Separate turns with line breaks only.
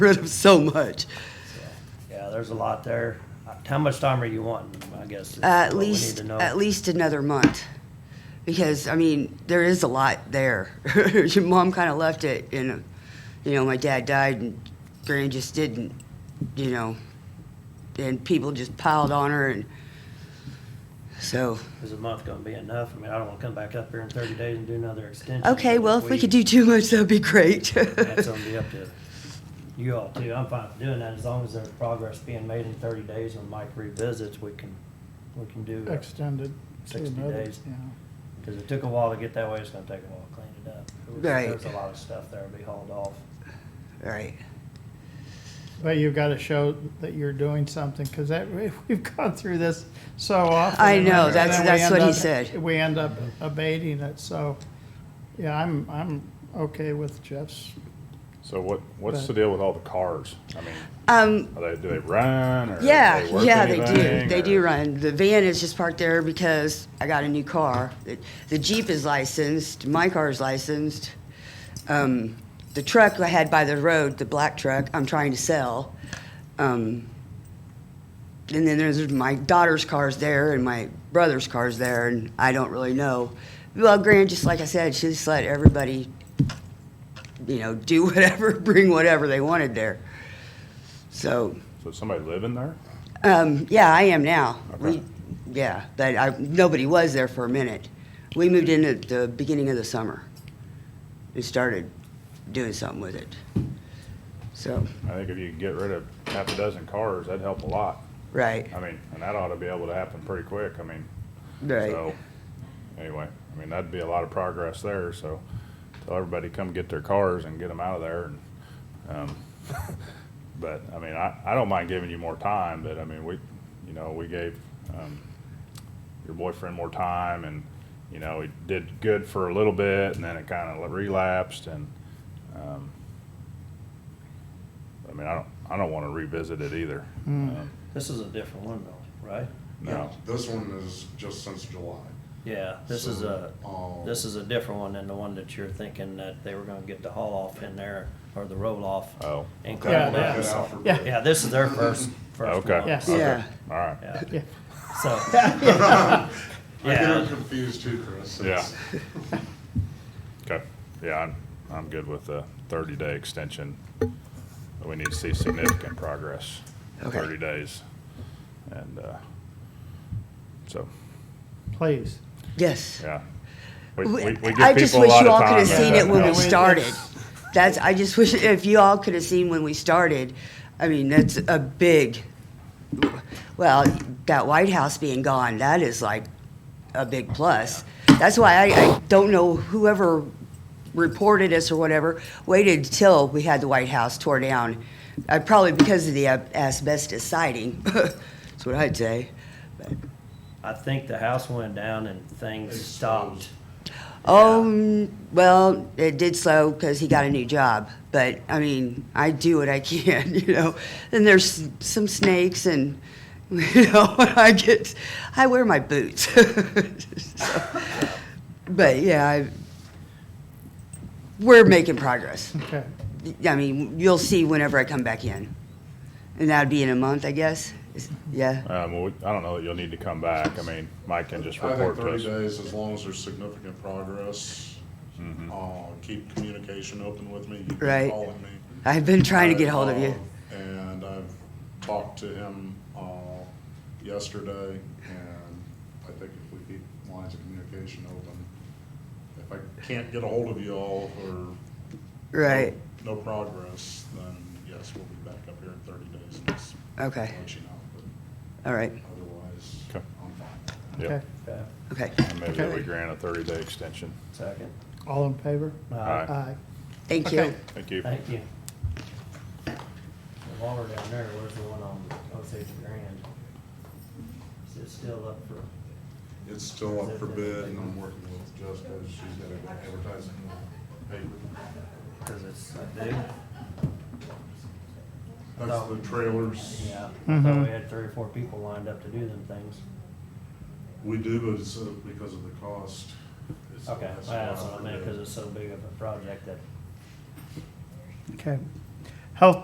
rid of so much.
Yeah, there's a lot there. How much time are you wanting, I guess? is
At
what we need
least,
to know.
at least another month. Because, I mean, there is a lot there. Your mom kind of left it and, you know, my dad died and Granny just didn't, you know. And people just piled on her and so,
Is a month gonna be enough? I mean, I don't wanna come back up here in thirty days and do another extension.
okay, well, if we could do too much, that'd be great.
That's gonna be up to you all too. I'm fine with doing that as long as there's progress being made in thirty days when Mike revisits, we can, we can do. it.
extended to
60
another,
days.
yeah.
Cause it took a while to get that way, it's gonna take a while to clean it up.
Right.
There's a lot of stuff there to be hauled off.
Right.
But you've got to show that you're doing something, because that, we've gone through this so often.
I
and
know,
then
that's-
we
that's
end
what he
up-
said.
We end up abating it, so, yeah, I'm, I'm okay with Jeff's.
So what, what's the
But-
deal with all the cars? I mean,
Um,
are they, do they run or? do
Yeah,
work
yeah, they do.
anything,
They
or-
do run. The van is just parked there because I got a new car. The- The Jeep is licensed, my car is licensed. Um, the truck I had by the road, the black truck, I'm trying to sell. Um, and then there's my daughter's car's there and my brother's car's there, and I don't really know. Well, Gran, just like I said, she just let everybody, you know, do whatever, bring whatever they wanted there. So,
So is somebody living there?
um, yeah, I am now. We,
Okay.
yeah, but I, nobody was there for a minute. We moved in at the beginning of the summer and started doing something with it. So,
I think if you could get rid of half a dozen cars, that'd help a lot.
right,
I mean, and that ought to be able to happen pretty quick. I mean,
right,
so, anyway, I mean, that'd be a lot of progress there, so tell everybody come get their cars and get them out of there and, um, but, I mean, I, I don't mind giving you more time, but I mean, we, you know, we gave, um, your boyfriend more time and, you know, he did good for a little bit and then it kind of relapsed and, um, I mean, I don't, I don't want to revisit it either. Um,
This is a different one though, right?
No.
This one is just since July.
Yeah, this is a,
So, um,
this is a different one than the one that you're thinking that they were gonna get the haul off in there, or the roll off.
Oh.
And
Okay,
clean
Yeah,
it
we'll
up.
get out for
yeah.
bid.
Yeah, this is their first, first
Okay.
one.
Yes.
yeah.
All right.
Yeah,
Yeah,
so,
I get
yeah,
them confused too, Chris.
Yeah.
It's-
Okay, yeah, I'm, I'm good with the thirty-day extension. But We need to see significant progress,
Okay.
thirty days. And, uh, so,
please.
Yes.
yeah. We, we, we give people a lot of time.
I just wish you all could have
that
seen it
doesn't
when we
help.
Yeah, we-
started. That's, I just wish, if you all could have seen when we started, I mean, that's a big, well, that White House being gone, that is like a big plus. That's why I, I don't know whoever reported us or whatever, waited till we had the White House tore down. Uh, probably because of the uh, asbestos siding, that's what I'd say.
I think the house went down and things stopped.
Oh, mm, well, it did slow because he got a new job. But I mean, I do what I can, you know. And there's some snakes, and you know, I get, I wear my boots. So, but yeah, I, we're making progress.
Okay,
I mean, you'll see whenever I come back in, and that'd be in a month, I guess. Is- Yeah,
Um, well, we- I don't know that you'll need to come back. I mean, Mike can just
I
report
think
to
thirty
us.
days, as long as there's significant progress,
Mm-hmm.
uh, keep communication open with me. You've
Right.
been calling me.
I've been trying to get hold of you.
Uh, And I've talked to him, uh, yesterday, and I think if we keep lines of communication open, if I can't get a hold of y'all or
Right.
No progress, then yes, we'll be back up here in thirty days and just
Okay.
let you know,
All right.
but otherwise,
Okay.
I'm fine.
Yep.
okay.
Okay,
Okay.
And Maybe
Okay.
that we grant a thirty-day extension.
Second.
All in favor?
All
Aye.
right,
Aye.
Thank you.
Okay.
Thank you.
Uh, Thank you. The water down there, where's the one on Osage Grand? Is it still up for?
It's still up for bid and I'm working with Jessica, she's got an advertising paper.
Cause it's a big.
That's the trailers.
Yeah, I thought
Mhm.
we had three or four people lined up to do them things.
We do, but it's uh, because of the cost. it's the
Okay, well,
last
that's
one
what I
for
meant,
bid.
cause it's so big of a project that
Okay. Health